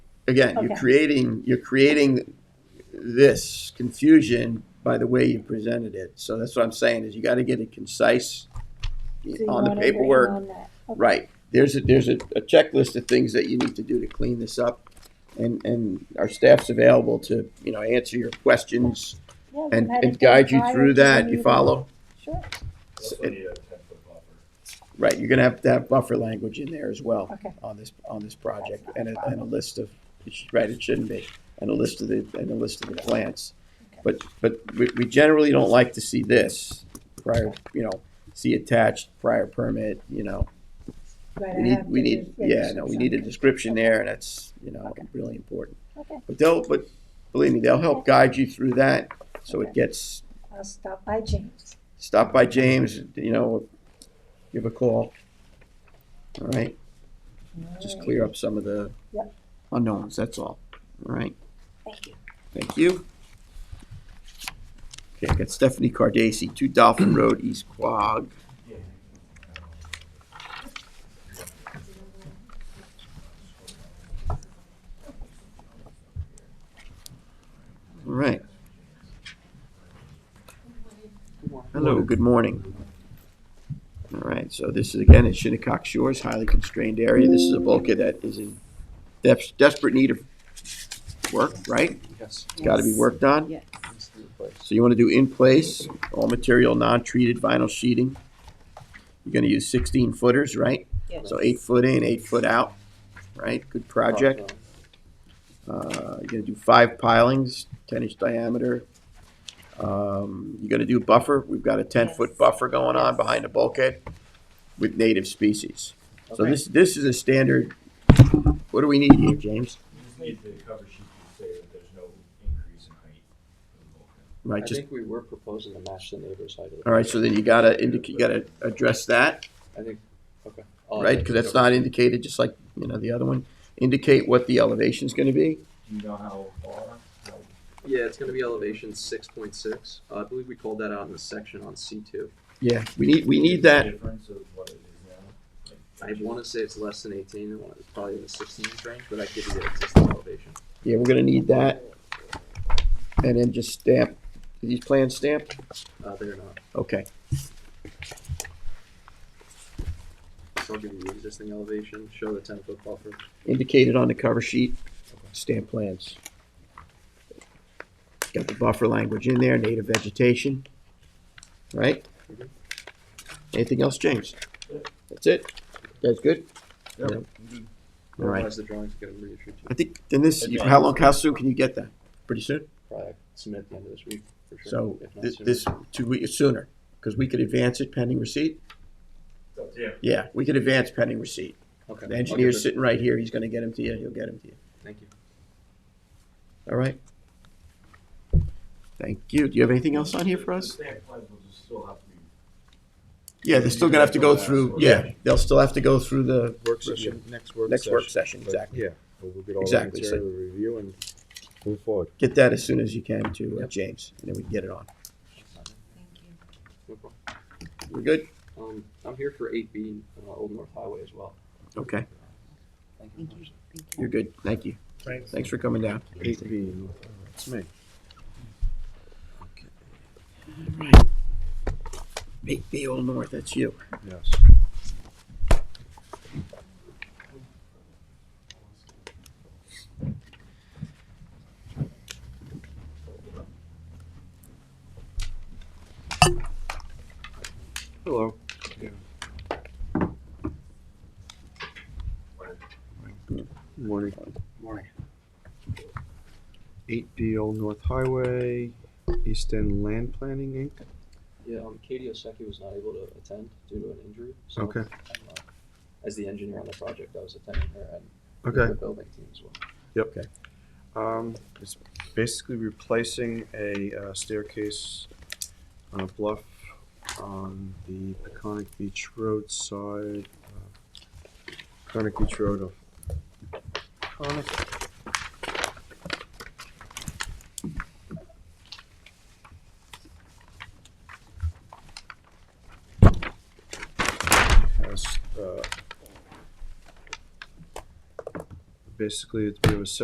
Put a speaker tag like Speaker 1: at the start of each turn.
Speaker 1: again, you're
Speaker 2: Okay.
Speaker 1: creating, you're creating this confusion by the way you presented it. So that's what I'm saying, is you gotta get it concise
Speaker 2: So you
Speaker 1: on the
Speaker 2: wanna write
Speaker 1: paperwork.
Speaker 2: on that. Okay.
Speaker 1: Right, there's a, there's a a checklist of things that you need to do to clean this up. And, and our staff's available to, you know, answer your questions
Speaker 2: Yeah, we've
Speaker 1: and,
Speaker 2: had
Speaker 1: and
Speaker 2: it done
Speaker 1: guide you
Speaker 2: prior
Speaker 1: through
Speaker 2: to the
Speaker 1: that, you
Speaker 2: meeting.
Speaker 1: follow?
Speaker 2: Sure,
Speaker 1: So
Speaker 3: That's
Speaker 1: it-
Speaker 3: what you ten foot buffer.
Speaker 1: Right, you're gonna have to have buffer language in there as well.
Speaker 2: Okay.
Speaker 1: On this, on this project,
Speaker 2: That's not
Speaker 1: and
Speaker 2: a
Speaker 1: a, and a list of, it should- right, it shouldn't be, and a list of the, and a list of the plants.
Speaker 2: Okay.
Speaker 1: But, but we, we generally don't like to see this prior, you know, see attached prior permit, you know.
Speaker 2: right,
Speaker 1: We
Speaker 2: I
Speaker 1: need,
Speaker 2: have
Speaker 1: we
Speaker 2: the
Speaker 1: need, yeah, no, we
Speaker 2: registration.
Speaker 1: need a description there, and that's, you know,
Speaker 2: Okay.
Speaker 1: really important.
Speaker 2: Okay,
Speaker 1: But they'll, but believe me, they'll help guide you through that, so it
Speaker 2: Okay.
Speaker 1: gets,
Speaker 2: I'll stop by James.
Speaker 1: stop by James, you know, give a call. All right? just
Speaker 2: Alright,
Speaker 1: clear up some of the
Speaker 2: Yep.
Speaker 1: unknowns, that's all. All right,
Speaker 2: Thank you.
Speaker 1: thank you. Okay, I got Stephanie Cardacy, Two Dolphin Road, East Quogue. All right. Hello, good morning. All right, so this is again at Shinnecock Shores, highly constrained area. This is a bulkhead that is in des- desperate need of work, right?
Speaker 3: Yes.
Speaker 1: It's gotta be worked on.
Speaker 4: Yes.
Speaker 1: So you want to do in place, all material non-treated vinyl sheeting. You're going to use sixteen footers, right?
Speaker 4: Yes.
Speaker 1: So eight foot in, eight foot out, right? Good project. Uh, you're going to do five pilings, ten inch diameter. Um, you're going to do buffer. We've got a ten foot
Speaker 4: Yes.
Speaker 1: buffer going on
Speaker 4: Yes.
Speaker 1: behind the bulkhead with native species. So
Speaker 4: Okay.
Speaker 1: this, this is a standard, what do we need here, James?
Speaker 3: You just need the cover sheet to say that there's no increase in height. for the bulkhead.
Speaker 1: Right,
Speaker 5: I
Speaker 1: just,
Speaker 5: think we were proposing to match the neighbor's height. of the
Speaker 1: all right, so
Speaker 5: building.
Speaker 1: then you gotta indicate, you gotta address that.
Speaker 5: I think, okay. I'll-
Speaker 1: right? Because that's not indicated, just like, you know, the other one. Indicate what the elevation's gonna be.
Speaker 3: Do you know how far? Like,
Speaker 5: Yeah, it's gonna be elevation six point six. Uh, I believe we called that out in the section on C two.
Speaker 1: Yeah. We need, we
Speaker 3: the
Speaker 1: need that,
Speaker 3: Difference of what it is now?
Speaker 5: I
Speaker 3: Like,
Speaker 5: wanna say it's less than eighteen, and it's probably in the sixteen range, but I give you the existing elevation.
Speaker 1: yeah, we're gonna need that. And then just stamp, are these plans stamped?
Speaker 5: Uh, they're not.
Speaker 1: Okay,
Speaker 5: So I'll give you the existing elevation, show the ten foot buffer.
Speaker 1: indicated on the cover sheet, stamp plans. Got the buffer language in there, native vegetation, right?
Speaker 5: Mhm.
Speaker 1: Anything else, James?
Speaker 3: Yeah.
Speaker 1: That's it? That's good?
Speaker 3: Yeah.
Speaker 1: All
Speaker 3: Mhm.
Speaker 1: right,
Speaker 5: Otherwise, the drawings get reissued to
Speaker 1: I think, then this,
Speaker 3: Okay.
Speaker 1: how long, how soon can you get that? Pretty soon?
Speaker 5: probably submit at the end of this week, for sure.
Speaker 1: So
Speaker 5: if not
Speaker 1: thi-
Speaker 5: sooner.
Speaker 1: this, two weeks sooner, because we could advance it pending receipt?
Speaker 3: Up to you.
Speaker 1: Yeah, we could advance pending receipt.
Speaker 5: Okay.
Speaker 1: The
Speaker 5: I'll give
Speaker 1: engineer's
Speaker 5: it-
Speaker 1: sitting right here, he's gonna get him to you, he'll get him to you,
Speaker 5: Thank you.
Speaker 1: all right? Thank you. Do you have anything else on here for us?
Speaker 3: The stamp plans will just still have to be
Speaker 1: Yeah, they're still gonna have to go through, yeah, they'll still have to go through the
Speaker 6: Work session, next work session.
Speaker 1: next work session, exactly.
Speaker 6: Yeah, we'll get all the
Speaker 1: Exactly, so-
Speaker 6: material review and move forward.
Speaker 1: Get that as soon as you can to uh, James, and then we can get it on.
Speaker 5: No problem.
Speaker 1: We're good?
Speaker 5: Um, I'm here for eight B, uh, Old North Highway as well.
Speaker 1: Okay,
Speaker 5: Thank you.
Speaker 4: Thank you, thank you.
Speaker 1: you're good, thank you. Thanks. Thanks for coming down.
Speaker 6: Eight B, it's me.
Speaker 1: Eight B Old North, that's you.
Speaker 6: Yes. Hello. Morning.
Speaker 5: Morning.
Speaker 6: Eight B Old North Highway, East End Land Planning Inc.
Speaker 5: Yeah, um, Katie Oseki was not able to attend due to an injury, so.
Speaker 6: Okay.
Speaker 5: I'm, uh, As the engineer on the project, I was attending her and
Speaker 6: Okay.
Speaker 5: the building team as well.
Speaker 6: Um, it's basically replacing a uh, staircase on a bluff on the Peconic Beach Road side. uh, Peconic Beach Road of. Peconic. Has, uh, basically, it's, we have a